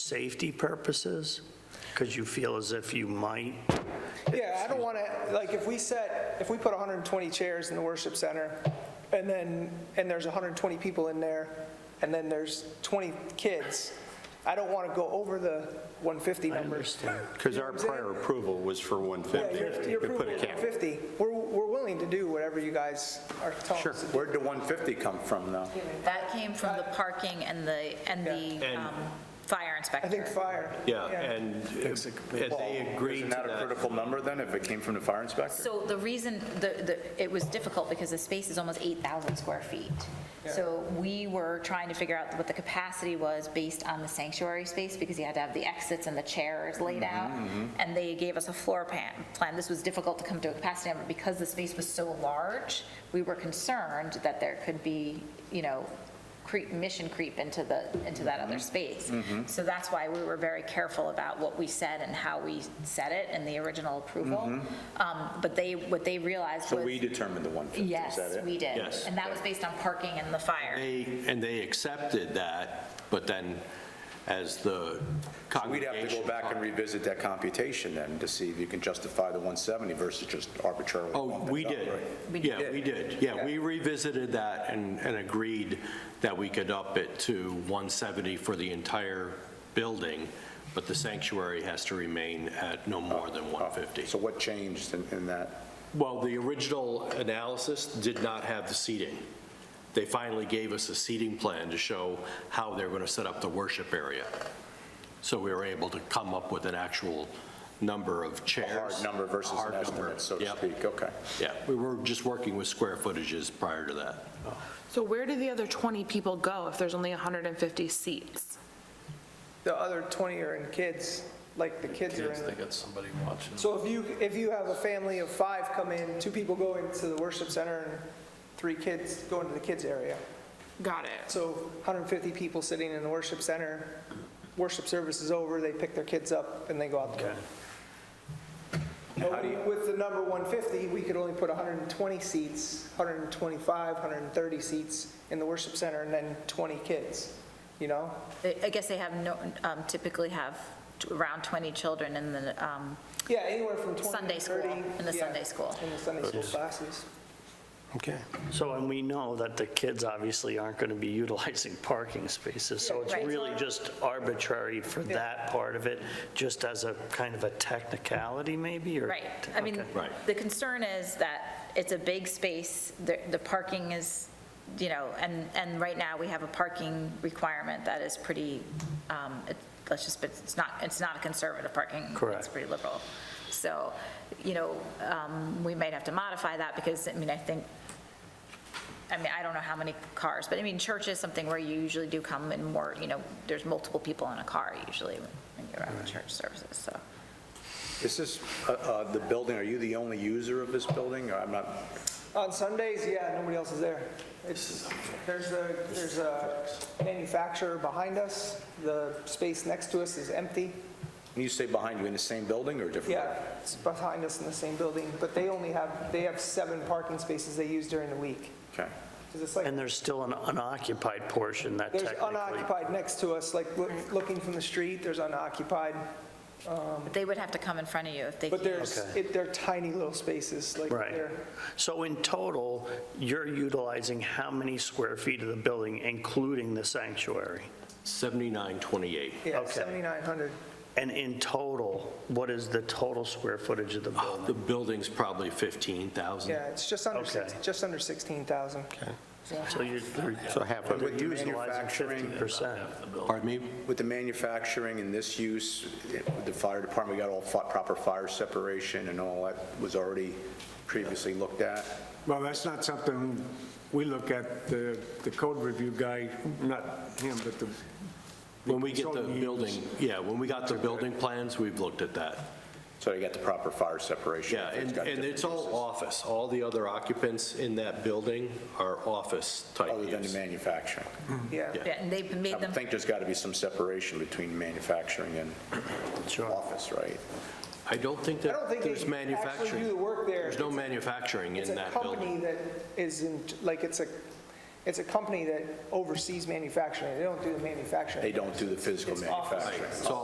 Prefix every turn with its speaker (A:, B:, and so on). A: safety purposes? Because you feel as if you might,
B: Yeah, I don't want to, like, if we set, if we put 120 chairs in the worship center, and then, and there's 120 people in there, and then there's 20 kids, I don't want to go over the 150
A: I
B: numbers.
A: understand.
C: Because our prior approval was for
B: Yeah,
C: 150.
B: your- your
C: We put
B: approval
C: a
B: is
C: cap.
B: 150. We're, we're willing to do whatever you guys are telling
C: Sure.
B: us.
C: Where'd the 150 come from, though?
D: That came from the parking and the, and the
E: And-
D: um, fire
B: I think
D: inspector.
B: fire.
E: Yeah, and if if they agreed to
C: Isn't that a
E: that,
C: critical number, then, if it came from the fire inspector?
D: So the reason, the, the, it was difficult because the space is almost 8,000 square feet. So we were trying to figure out what the capacity was based on the sanctuary space because you had to have the exits and the chairs laid
B: Mm-hmm,
D: out. And they gave us a floor plan, plan. This was difficult to come to a capacity number because the space was so large. We were concerned that there could be, you know, creep, mission creep into the, into that
C: Mm-hmm.
D: other space. So that's why we were very careful about what we said and how we said it in the original approval. Um, But they, what they realized
C: Mm-hmm. So we
D: was,
C: determined the 150, is
D: yes,
C: that it?
D: we did.
E: Yes.
D: And that was based on parking and the fire.
E: they, and they accepted that, but then as the
C: We'd have to
E: congregation.
C: go back and revisit that computation then, to see if you can justify the 170 versus just arbitrarily
E: Oh,
C: bumping
E: we
C: it up,
E: did.
C: right?
E: Yeah, we did. Yeah, we revisited that and, and agreed that we could up it to 170 for the entire building, but the sanctuary has to remain at no more than
C: Oh,
E: 150.
C: So what changed in in that?
E: Well, the original analysis did not have the seating. They finally gave us a seating plan to show how they were going to set up the worship area. So we were able to come up with an actual number of chairs.
C: Hard number versus an
E: Hard number.
C: estimate, so to
E: Yep,
C: speak, okay.
E: Yeah, we were just working with square footages prior to that.
F: So where do the other 20 people go if there's only 150 seats?
B: The other 20 are in kids, like the kids are in.
G: They got somebody watching.
B: So if you, if you have a family of five come in, two people go into the worship center and three kids go into the kids area.
F: Got it.
B: So 150 people sitting in the worship center, worship service is over, they pick their kids up and they go out the door. But With the number 150, we could only put 120 seats, 125, 130 seats in the worship center and then 20 kids, you know?
D: They- I guess they have no, um, typically have t- around 20 children in the, um,
B: Yeah, anywhere from 20 to 30.
D: Sunday school, in the
B: yeah,
D: Sunday school.
B: In the Sunday school classes.
A: Okay. So, and we know that the kids obviously aren't going to be utilizing parking spaces, so it's
D: Right.
A: really just arbitrary for that part of it, just as a kind of a technicality maybe, or?
D: Right. I mean,
A: Okay.
E: Right.
D: the concern is that it's a big space, the, the parking is, you know, and, and right now we have a parking requirement that is pretty, um, it- let's just, but it's not, it's not a conservative parking. It's
A: Correct.
D: pretty liberal. So, you know, um, we might have to modify that because, I mean, I think I mean, I don't know how many cars, but I mean, church is something where you usually do come in more, you know, there's multiple people in a car usually when you're at church services, so.
C: Is this, uh, uh, the building, are you the only user of this building? Or I'm not,
B: On Sundays, yeah, nobody else is there. It's, there's a, there's a manufacturer behind us, the space next to us is empty.
C: when you say behind you, in the same building or different?
B: Yeah, it's behind us in the same building, but they only have, they have seven parking spaces they use during the week.
C: Okay.
B: 'Cause it's like,
A: And there's still an unoccupied portion that
B: there's
A: technically.
B: unoccupied next to us, like, loo- looking from the street, there's unoccupied,
D: But they would have to come in front of you if they.
B: but
D: can't.
B: there's,
A: Okay.
B: it- they're tiny little spaces, like,
A: Right.
B: they're,
A: So in total, you're utilizing how many square feet of the building, including the sanctuary?
E: 7928.
B: yeah,
A: Okay.
B: 7,900.
A: And in total, what is the total square footage of the building?
E: The building's probably 15,000.
B: Yeah, it's just under, six-
A: Okay.
B: just under 16,000.
A: So you're,
C: So half of
A: you're
C: it.
A: utilizing 50%.
E: Pardon me?
C: With the manufacturing and this use, it- with the fire department got all fi- proper fire separation and all that was already previously looked at.
H: Well, that's not something we look at, the, the code review guy, not him, but the.
E: When we get the
H: consultant used.
E: building, yeah, when we got the building plans, we've looked at that.
C: So they got the proper fire separation.
E: Yeah,
C: It's
E: and,
C: got
E: and
C: different
E: it's all
C: uses,
E: office. All the other occupants in that building are office-type
C: Other than the
E: use.
C: manufacturing.
B: Yeah.
D: Yeah, And they've
C: I
D: made
C: would
D: them,
C: think there's got to be some separation between manufacturing and office, right?
E: I don't think
B: I don't
E: that
B: think
E: there's
B: they actually do the
E: manufacturing.
B: work there.
E: There's no manufacturing
B: It's
E: in
B: a
E: that building.
B: company that isn't, like, it's a, It's a company that oversees manufacturing. They don't do the manufacturing.
C: They don't do the physical
B: It's off the
C: manufacturing.
B: street.